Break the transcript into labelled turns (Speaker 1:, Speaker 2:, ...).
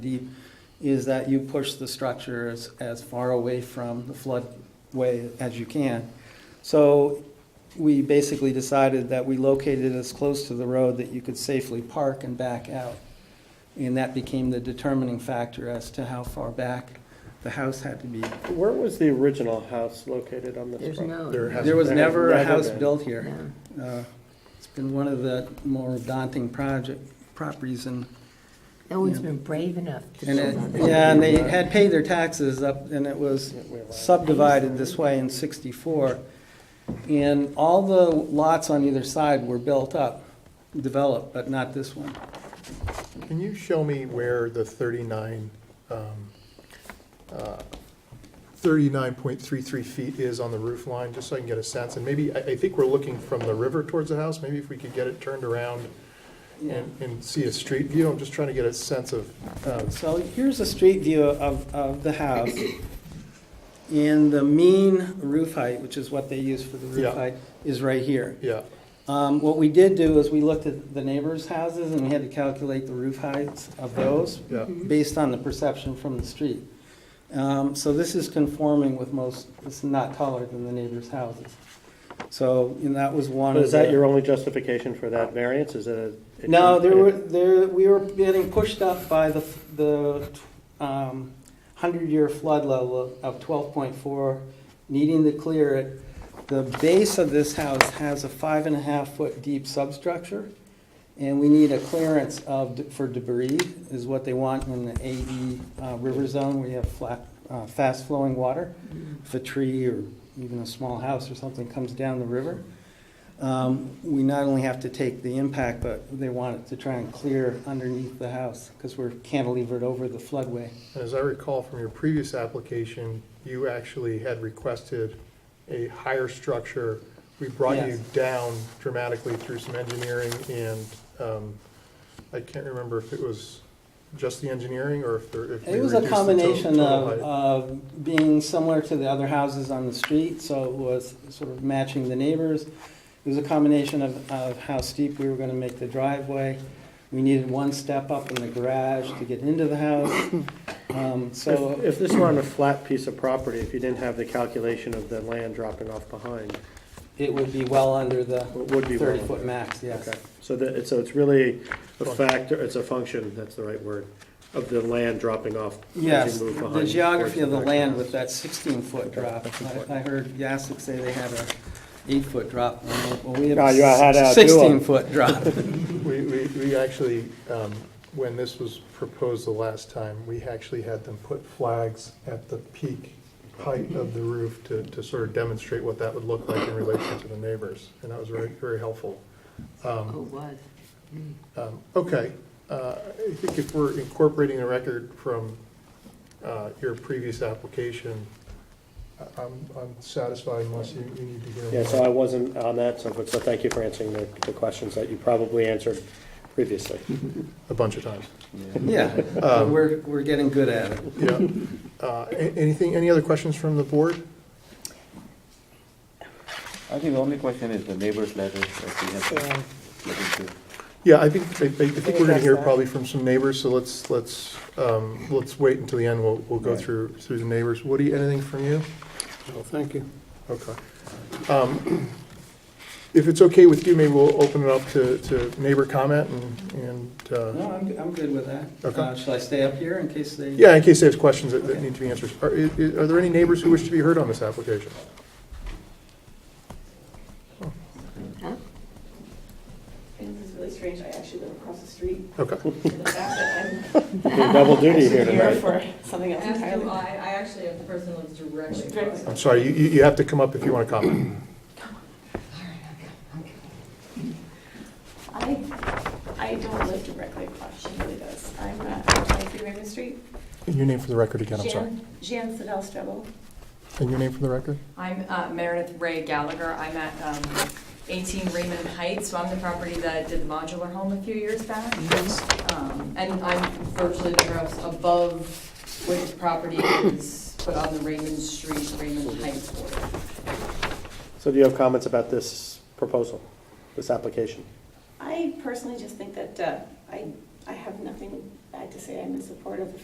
Speaker 1: deep, is that you push the structure as, as far away from the floodway as you can. So we basically decided that we located it as close to the road that you could safely park and back out. And that became the determining factor as to how far back the house had to be.
Speaker 2: Where was the original house located on this
Speaker 3: There's
Speaker 2: property?
Speaker 3: no-
Speaker 4: There has-
Speaker 1: There was
Speaker 2: There
Speaker 1: never a
Speaker 2: never
Speaker 1: house
Speaker 2: been.
Speaker 1: built here.
Speaker 3: No.
Speaker 1: Uh, It's been one of the more daunting project, properties in
Speaker 3: No one's
Speaker 1: Yeah.
Speaker 3: been brave enough to
Speaker 1: And
Speaker 3: build on
Speaker 1: it,
Speaker 3: that.
Speaker 1: yeah, and they had paid their taxes up, and it was subdivided this way in sixty-four. And all the lots on either side were built up, developed, but not this one.
Speaker 4: Can you show me where the 39, um, uh, 39.33 feet is on the roof line, just so I can get a sense? And maybe, I, I think we're looking from the river towards the house, maybe if we could get it turned around and, and see a street view, I'm just trying to get a sense of, uh,
Speaker 1: So here's a street view of, of the house. And the mean roof height, which is what they use for the
Speaker 4: Yeah.
Speaker 1: roof height, is right here.
Speaker 4: yeah,
Speaker 1: Um, what we did do is we looked at the neighbors' houses and we had to calculate the roof heights of those
Speaker 4: yeah.
Speaker 1: based on the perception from the street. Um, So this is conforming with most, it's not taller than the neighbors' houses. So, and that was one
Speaker 2: But
Speaker 1: of
Speaker 2: is that
Speaker 1: the-
Speaker 2: your only justification for that variance? Is it a?
Speaker 1: No, there were, there, we were getting pushed up by the, the um, hundred-year flood level of twelve point four, needing to clear it. The base of this house has a five and a half foot deep substructure, and we need a clearance of, for debris, is what they want in the AE uh, river zone, where you have flat, uh, fast-flowing water. If a tree or even a small house or something comes down the river, um, we not only have to take the impact, but they want it to try and clear underneath the house, because we're cantilevered over the floodway.
Speaker 4: And as I recall from your previous application, you actually had requested a higher structure. We brought you
Speaker 1: Yes.
Speaker 4: down dramatically through some engineering and, um, I can't remember if it was just the engineering or if there, if we
Speaker 1: It was
Speaker 4: reduced
Speaker 1: a
Speaker 4: the to-
Speaker 1: combination
Speaker 4: total
Speaker 1: of, uh,
Speaker 4: height.
Speaker 1: of being similar to the other houses on the street, so it was sort of matching the neighbors. It was a combination of, of how steep we were gonna make the driveway. We needed one step up in the garage to get into the house. Um,
Speaker 2: If,
Speaker 1: So,
Speaker 2: if this were on a flat piece of property, if you didn't have the calculation of the land dropping off behind,
Speaker 1: it would be well under the
Speaker 2: it would be. well
Speaker 1: thirty-foot
Speaker 2: under.
Speaker 1: max, yes.
Speaker 2: Okay, so that, so it's really a
Speaker 4: Function.
Speaker 2: factor, it's a function, that's the right word, of the land dropping off. as you
Speaker 1: Yes,
Speaker 2: move
Speaker 1: the
Speaker 2: behind
Speaker 1: geography of the
Speaker 2: towards
Speaker 1: land
Speaker 2: house.
Speaker 1: with that 16-foot drop.
Speaker 4: that's
Speaker 1: I-
Speaker 4: important.
Speaker 1: I heard Yassick say they had a eight-foot drop. Well, we
Speaker 2: No, you
Speaker 1: had
Speaker 2: had
Speaker 1: a
Speaker 2: a
Speaker 1: 16-foot drop.
Speaker 4: We, we, we actually, um, when this was proposed the last time, we actually had them put flags at the peak height of the roof to, to sort of demonstrate what that would look like in relation to the neighbors, and that was very, very helpful. Um,
Speaker 3: Oh, it was.
Speaker 4: Um, Okay, uh, I think if we're incorporating the record from uh, your previous application, I- I'm I'm satisfied unless you you need to hear.
Speaker 2: Yeah,
Speaker 4: more.
Speaker 2: so I wasn't on that, so, but, so thank you for answering the, the questions that you probably answered previously.
Speaker 4: A bunch of times.
Speaker 1: Yeah, but
Speaker 2: Um,
Speaker 1: we're, we're getting good at it.
Speaker 4: Yeah. Uh, a- Anything, any other questions from the board?
Speaker 5: I think the only question is the neighbor's letter that we have to look into.
Speaker 4: Yeah, I think, I I- I think we're going to
Speaker 3: address
Speaker 4: hear
Speaker 3: that.
Speaker 4: probably from some neighbors, so let's, let's, um, let's wait until the end. We'll, we'll go
Speaker 5: Right.
Speaker 4: through, through the neighbors. Woody, anything from you?
Speaker 2: Well, thank you.
Speaker 4: Okay. Um, If it's okay with you, maybe we'll open it up to, to neighbor comment and, and, uh,
Speaker 1: No, I'm, I'm good with that.
Speaker 4: Okay.
Speaker 1: Uh, Shall I stay up here in case they?
Speaker 4: yeah, in case there's questions that, that need to be answered. Are, i- i- are there any neighbors who wish to be heard on this application?
Speaker 6: And this is really strange, I actually live across the street,
Speaker 4: Okay.
Speaker 6: and the fact that I'm
Speaker 2: Double duty here
Speaker 6: actually here
Speaker 2: tonight.
Speaker 6: for something else
Speaker 7: As do
Speaker 6: entirely.
Speaker 7: I, I actually have the person that lives directly across.
Speaker 6: Directly.
Speaker 4: I'm sorry, you, you you have to come up if you want to comment.
Speaker 6: I, I don't live directly across, she really does. I'm at 23 Raymond Street.
Speaker 4: Your name for the record again, I'm sorry.
Speaker 6: Jan, Jan Sedell Strebel.
Speaker 4: And your name for the record?
Speaker 7: I'm uh, Meredith Ray Gallagher. I'm at um, 18 Raymond Heights, so I'm the property that did the modular home a few years back. Um, And I'm virtually the house above which property is, but on the Raymond Street, Raymond Heights border.
Speaker 2: So do you have comments about this proposal, this application?
Speaker 6: I personally just think that uh, I I have nothing bad to say. I'm in support of